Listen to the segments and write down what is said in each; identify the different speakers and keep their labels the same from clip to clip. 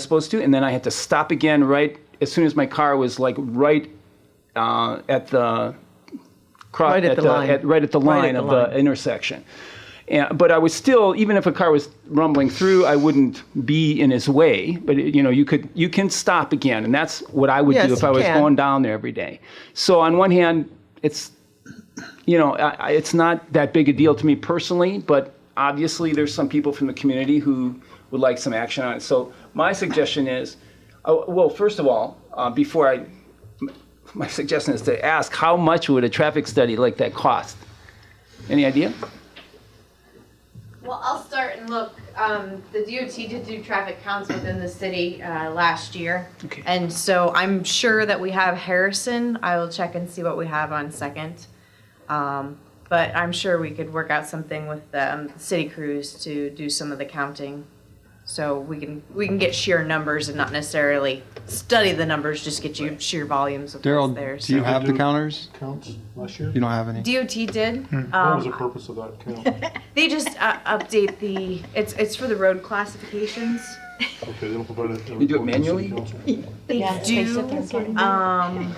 Speaker 1: uh, Right at the line. Right
Speaker 2: line
Speaker 1: at the line. line. Right. intersection. And,
Speaker 3: but I was still, even if a car was rumbling through, I wouldn't be in his way. But you know, you could, you can stop again, and that's what I would
Speaker 1: Yes,
Speaker 3: do if
Speaker 1: you
Speaker 3: I was
Speaker 1: can.
Speaker 3: going down there every day. So on one hand, it's, you know, I, I- it's not that big a deal to me personally, but obviously there's some people from the community who would like some action on it. So my suggestion is, oh, well, first of all, uh, before I, my suggestion is to ask how much would a traffic study like that cost? Any idea?
Speaker 4: Well, I'll start and look. Um, the DOT did do traffic counts within the city uh, last year.
Speaker 3: Okay.
Speaker 4: And so I'm sure that we have Harrison. I will check and see what we have on second. Um, but I'm sure we could work out something with the um, city crews to do some of the counting. So we can we can get sheer numbers and not necessarily study the numbers, just get you sheer volumes of what's there.
Speaker 5: Daryl, do you
Speaker 4: so.
Speaker 5: have the counters?
Speaker 6: counts last year?
Speaker 5: You don't have any.
Speaker 4: DOT did.
Speaker 5: Hmm.
Speaker 6: What
Speaker 4: Um,
Speaker 6: was the purpose of that count?
Speaker 4: They just uh, update the, it's, it's for the road classifications.
Speaker 6: Okay, they don't provide it.
Speaker 3: You do it manually?
Speaker 4: They
Speaker 7: they sit there
Speaker 4: do,
Speaker 7: and sort of-
Speaker 4: um,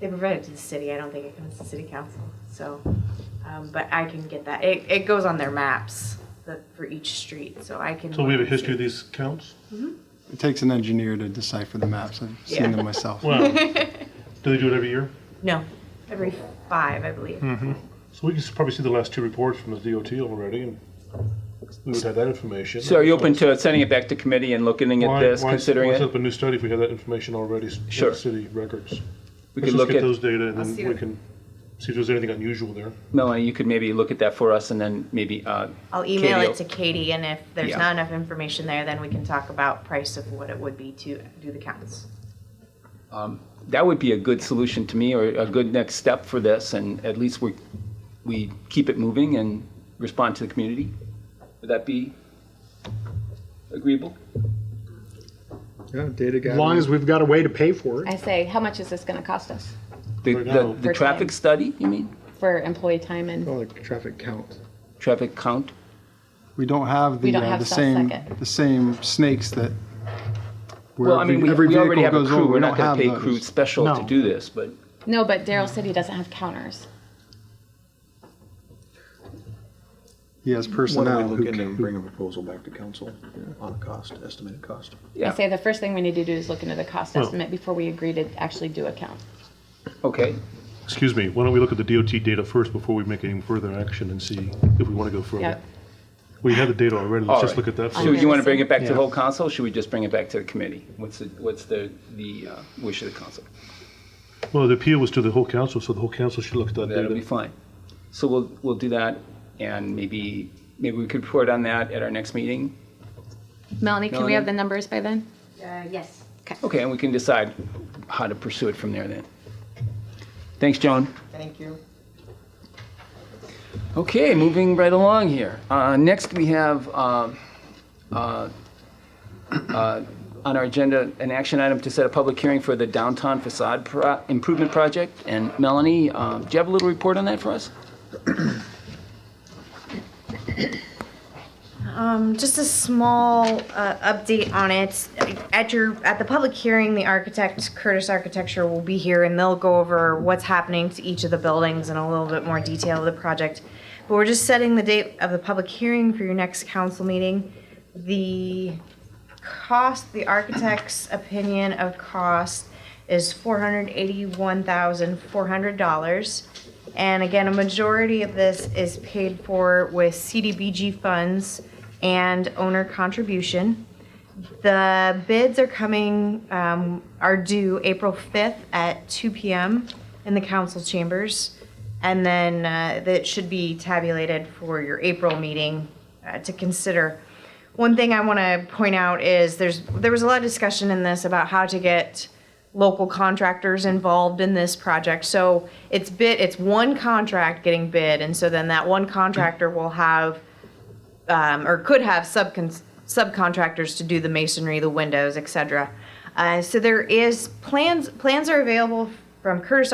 Speaker 4: they provide it to the city, I don't think it comes to city council, so, um, but I can get that. It, it goes on their maps, the, for each street, so I can.
Speaker 6: So we have a history of these counts?
Speaker 5: It takes an engineer to decipher the maps. I've seen
Speaker 4: Yeah.
Speaker 5: them myself.
Speaker 6: Wow. Do they do it every year?
Speaker 4: No, every five, I believe.
Speaker 6: Hmm. So we can s- probably see the last two reports from the DOT already, and we would have that information.
Speaker 3: So are you open to sending it back to committee and looking at
Speaker 6: Why-
Speaker 3: this,
Speaker 6: why-
Speaker 3: considering
Speaker 6: Why set
Speaker 3: it?
Speaker 6: up a new study if we have that information already s- in
Speaker 3: Sure.
Speaker 6: the city records?
Speaker 3: We
Speaker 6: Let's
Speaker 3: could
Speaker 6: just
Speaker 3: look
Speaker 6: get
Speaker 3: at,
Speaker 6: those data, and
Speaker 4: see
Speaker 6: then we
Speaker 4: what-
Speaker 6: can see if there's anything unusual there.
Speaker 3: Melanie, you could maybe look at that for us and then maybe, uh,
Speaker 4: I'll email
Speaker 3: Katie,
Speaker 4: it to Katie, and if there's
Speaker 3: Yeah.
Speaker 4: not enough information there, then we can talk about price of what it would be to do the counts.
Speaker 3: that would be a good solution to me or a good next step for this. And at least we, we keep it moving and respond to the community. Would that be agreeable?
Speaker 8: Yeah, data As long as we've got a way to pay for it.
Speaker 7: I say, how much is this going to cost us
Speaker 3: The,
Speaker 6: Right
Speaker 3: the,
Speaker 6: now.
Speaker 3: the
Speaker 7: For
Speaker 3: traffic
Speaker 7: time.
Speaker 3: study, you mean?
Speaker 7: for employee time and
Speaker 8: Well, like traffic count.
Speaker 3: Traffic count?
Speaker 5: We don't have the
Speaker 7: We don't
Speaker 5: uh,
Speaker 7: have
Speaker 5: the
Speaker 7: stuff
Speaker 5: same
Speaker 7: second.
Speaker 5: the same snakes that. Where
Speaker 3: Well, I mean, we,
Speaker 5: every
Speaker 3: we already
Speaker 5: vehicle
Speaker 3: have a
Speaker 5: goes
Speaker 3: crew.
Speaker 5: over,
Speaker 3: We're
Speaker 5: we
Speaker 3: not
Speaker 5: don't
Speaker 3: gonna
Speaker 5: have
Speaker 3: pay
Speaker 5: those.
Speaker 3: crew special to
Speaker 8: No.
Speaker 3: do this, but
Speaker 7: no, but Daryl City doesn't have counters.
Speaker 5: He has
Speaker 9: Why
Speaker 5: personnel
Speaker 9: don't we
Speaker 5: who
Speaker 9: look into and
Speaker 5: can.
Speaker 9: bring a proposal back to council on a cost, estimated cost?
Speaker 3: Yeah.
Speaker 7: I say the first thing we need to do is look into the cost
Speaker 6: Well-
Speaker 7: estimate before we agree to actually do a count.
Speaker 3: okay.
Speaker 6: Excuse me, why don't we look at the DOT data first before we make any further action and see if we want to go further?
Speaker 7: Yep.
Speaker 6: We have the data already, let's
Speaker 3: All
Speaker 6: just
Speaker 3: right.
Speaker 6: look at that.
Speaker 3: So
Speaker 6: first.
Speaker 3: you want to bring it back to the
Speaker 8: Yeah.
Speaker 3: whole council, or should we just bring it back to the committee? What's the, what's the, the uh, wish of the council?
Speaker 6: Well, the appeal was to the whole council, so the whole council should look at that
Speaker 3: That'll be
Speaker 6: data.
Speaker 3: fine. So we'll, we'll do that, and maybe, maybe we could report on that at our next meeting.
Speaker 7: Melanie, can we
Speaker 3: Melanie?
Speaker 7: have the numbers by then?
Speaker 4: yes.
Speaker 3: Okay, and we can decide how to pursue it from there then. Thanks, Joan.
Speaker 1: Thank you.
Speaker 3: Okay, moving right along here. Uh, Next, we have um, uh, uh, on our agenda, an action item to set a public hearing for the downtown facade pro- improvement project. And Melanie, uh, do you have a little report on that for us?
Speaker 4: Um, just a small uh, update on it. At your at the public hearing, the architect Curtis Architecture will be here, and they'll go over what's happening to each of the buildings in a little bit more detail of the project. But we're just setting the date of the public hearing for your next council meeting. The cost, the architect's opinion of cost is four hundred eighty-one thousand four hundred dollars. And again, a majority of this is paid for with CDBG funds and owner contribution. The bids are coming, um, are due April fifth at two PM in the council chambers. And then, uh, that should be tabulated for your April meeting, uh, to consider. One thing I want to point out is there's there was a lot of discussion in this about how to get local contractors involved in this project. So it's bid it's one contract getting bid, and so then that one contractor will have um, or could have subcon- subcontractors to do the masonry, the windows, etc. Uh, so there is plans plans are available from Curtis